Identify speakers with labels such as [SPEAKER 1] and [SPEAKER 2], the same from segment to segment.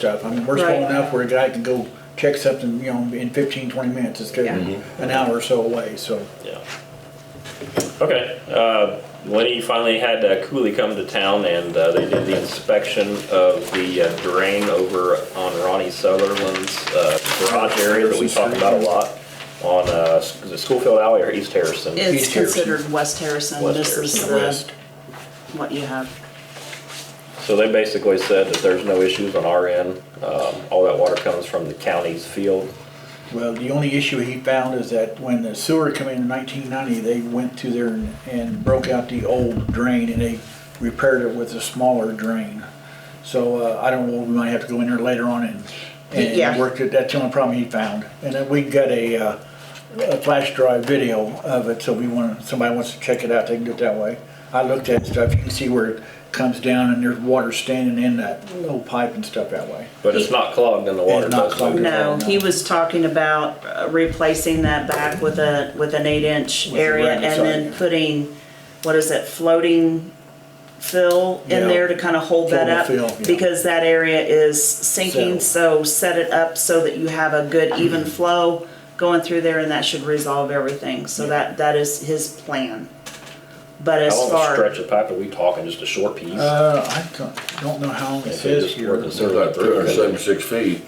[SPEAKER 1] stuff. I mean, we're
[SPEAKER 2] Right.
[SPEAKER 1] small enough where a guy can go check something, you know, in 15, 20 minutes instead of
[SPEAKER 2] Yeah.
[SPEAKER 1] an hour or so away. So
[SPEAKER 3] Yeah. Okay. Uh, Lenny finally had uh, Cooley come to town, and uh, they did the inspection of the uh, drain over on Ronnie Sutherland's uh, garage area that we talk about a lot on uh, S- is it Schoolfield Alley or East Harrison.
[SPEAKER 2] It's
[SPEAKER 1] East Harrison.
[SPEAKER 2] considered West Harrison.
[SPEAKER 3] West
[SPEAKER 2] This is
[SPEAKER 3] Harrison.
[SPEAKER 2] the, what you have.
[SPEAKER 3] So they basically said that there's no issues on our end. Um, all that water comes from the county's field.
[SPEAKER 1] Well, the only issue he found is that when the sewer came in in nineteen ninety, they went to there and- and broke out the old drain and they repaired it with a smaller drain. So, uh, I don't know, we might have to go in there later on and,
[SPEAKER 2] Yeah.
[SPEAKER 1] and work it, that's the only problem he found. And then we got a, uh, a flash drive video of it, so we want, somebody wants to check it out, they can do it that way. I looked at stuff, you can see where it comes down and there's water standing in that little pipe and stuff that way.
[SPEAKER 3] But it's not clogged and the water
[SPEAKER 1] It's not
[SPEAKER 3] doesn't.
[SPEAKER 1] clogged.
[SPEAKER 2] No,
[SPEAKER 1] no.
[SPEAKER 2] he was talking about uh, replacing that back with a, with an eight inch
[SPEAKER 1] With a
[SPEAKER 2] area
[SPEAKER 1] round
[SPEAKER 2] and then
[SPEAKER 1] side.
[SPEAKER 2] putting, what is it, floating fill in
[SPEAKER 1] Yeah.
[SPEAKER 2] there to kind of hold that up?
[SPEAKER 1] Floating fill, yeah.
[SPEAKER 2] Because that area is sinking, so set it up so that you have a good even flow going through there and that should resolve everything. So that, that is his plan. But as
[SPEAKER 3] How long a
[SPEAKER 2] far.
[SPEAKER 3] stretch of pipe are we talking? Just a short piece?
[SPEAKER 1] Uh, I don't, don't know how long it
[SPEAKER 3] If it
[SPEAKER 1] says
[SPEAKER 3] is
[SPEAKER 1] here.
[SPEAKER 3] worth the
[SPEAKER 4] There's like three hundred seventy-six feet.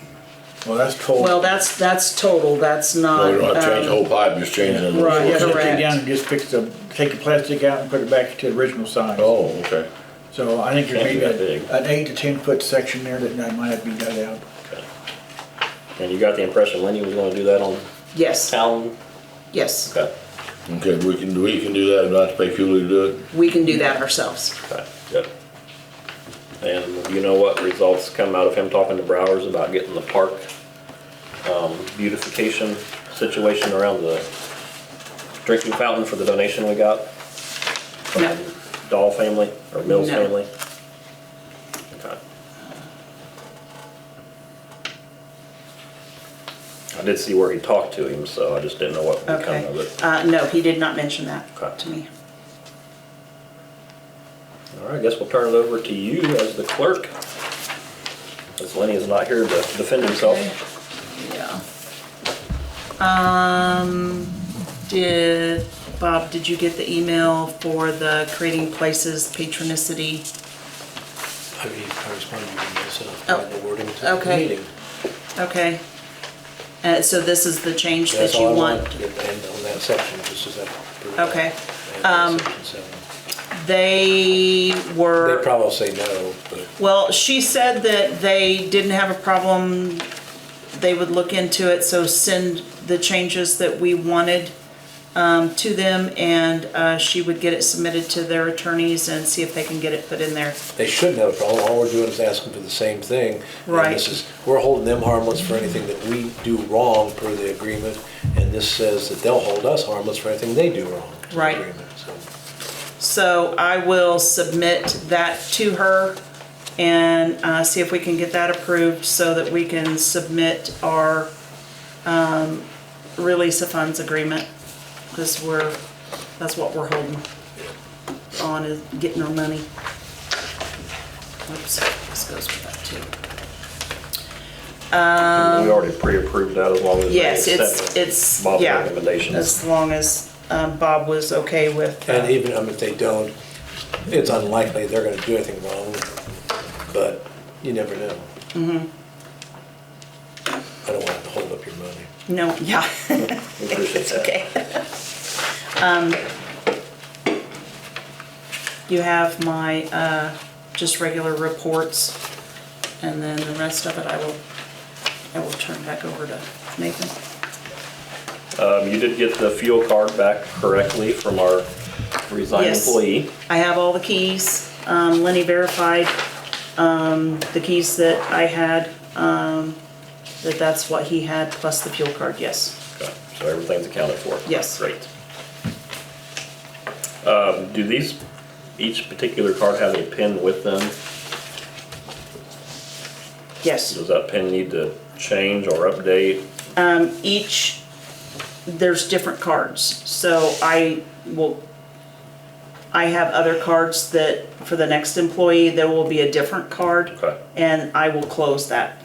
[SPEAKER 1] Well, that's total.
[SPEAKER 2] Well, that's, that's total, that's not.
[SPEAKER 4] We don't have to change the
[SPEAKER 2] um,
[SPEAKER 4] whole pipe, just change it. in the
[SPEAKER 2] Right.
[SPEAKER 1] Yeah,
[SPEAKER 4] source.
[SPEAKER 1] so take
[SPEAKER 2] correct.
[SPEAKER 1] down and just fix the, take the plastic out and put it back to the original size.
[SPEAKER 4] Oh, okay.
[SPEAKER 1] So I think there's
[SPEAKER 3] Can't be
[SPEAKER 1] maybe
[SPEAKER 3] that
[SPEAKER 1] a-
[SPEAKER 3] big.
[SPEAKER 1] an eight to ten foot section there that might have to be dug out.
[SPEAKER 3] And you got the impression Lenny was going to do that on
[SPEAKER 2] Yes,
[SPEAKER 3] town?
[SPEAKER 2] yes,
[SPEAKER 3] Okay.
[SPEAKER 4] Okay, we can, we can do that, not to pay Cooley to do it.
[SPEAKER 2] we can do that ourselves.
[SPEAKER 3] Okay, good. And you know what results come out of him talking to Browers about getting the park um, beautification situation around the drinking fountain for the donation we got? from
[SPEAKER 2] No.
[SPEAKER 3] Dahl family or Mills
[SPEAKER 2] No.
[SPEAKER 3] family? Okay. I did see where he talked to him, so I just didn't know what would come
[SPEAKER 2] Okay.
[SPEAKER 3] of it.
[SPEAKER 2] Uh, no, he did not mention that
[SPEAKER 3] Okay.
[SPEAKER 2] to me.
[SPEAKER 3] All right, I guess we'll turn it over to you as the clerk. As Lenny is not here to defend himself.
[SPEAKER 2] Yeah. Um, did, Bob, did you get the email for the creating places patronicity?
[SPEAKER 5] I mean, I responded to you myself,
[SPEAKER 2] Oh,
[SPEAKER 5] by the wording to the
[SPEAKER 2] okay.
[SPEAKER 5] meeting.
[SPEAKER 2] Okay. Uh, so this is the change that
[SPEAKER 5] That's all
[SPEAKER 2] you
[SPEAKER 5] I wanted
[SPEAKER 2] want?
[SPEAKER 5] to end on that section, just as that.
[SPEAKER 2] Okay. Um,
[SPEAKER 5] And on section seven.
[SPEAKER 2] They were.
[SPEAKER 5] They probably say no, but
[SPEAKER 2] Well, she said that they didn't have a problem, they would look into it, so send the changes that we wanted um, to them, and uh, she would get it submitted to their attorneys and see if they can get it put in there.
[SPEAKER 5] they shouldn't have a problem. All we're doing is asking for the same thing. And
[SPEAKER 2] Right.
[SPEAKER 5] This is, we're holding them harmless for anything that we do wrong per the agreement, and this says that they'll hold us harmless for anything they do wrong. to the
[SPEAKER 2] Right.
[SPEAKER 5] agreement, so.
[SPEAKER 2] So I will submit that to her and uh, see if we can get that approved so that we can submit our um, release of funds agreement, because we're, that's what we're holding on, is getting our money. Oops, this goes with that too.
[SPEAKER 3] We already pre-approved that as long as they
[SPEAKER 2] Yes, it's,
[SPEAKER 3] accept it.
[SPEAKER 2] it's,
[SPEAKER 3] Bob's
[SPEAKER 2] yeah,
[SPEAKER 3] recommendations.
[SPEAKER 2] as long as um, Bob was okay with. uh,
[SPEAKER 5] And even um, if they don't, it's unlikely they're gonna do anything wrong, but you never know. I don't want to hold up your money.
[SPEAKER 2] No, yeah.
[SPEAKER 3] We appreciate
[SPEAKER 2] It's
[SPEAKER 3] that.
[SPEAKER 2] okay. Um, You have my, uh, just regular reports, and then the rest of it I will, I will turn back over to Nathan.
[SPEAKER 3] Um, You did get the fuel card back correctly from our resigned
[SPEAKER 2] Yes.
[SPEAKER 3] employee.
[SPEAKER 2] I have all the keys, um, Lenny verified, um, the keys that I had, um, that that's what he had, plus the fuel card, yes.
[SPEAKER 3] Okay, So everything's accounted for?
[SPEAKER 2] Yes.
[SPEAKER 3] Great. Um, Do these, each particular card have a pin with them?
[SPEAKER 2] Yes.
[SPEAKER 3] Does that pin need to change or update?
[SPEAKER 2] each, there's different cards, so I will, I have other cards that, for the next employee, there will be a different card.
[SPEAKER 3] Okay.
[SPEAKER 2] And I will close that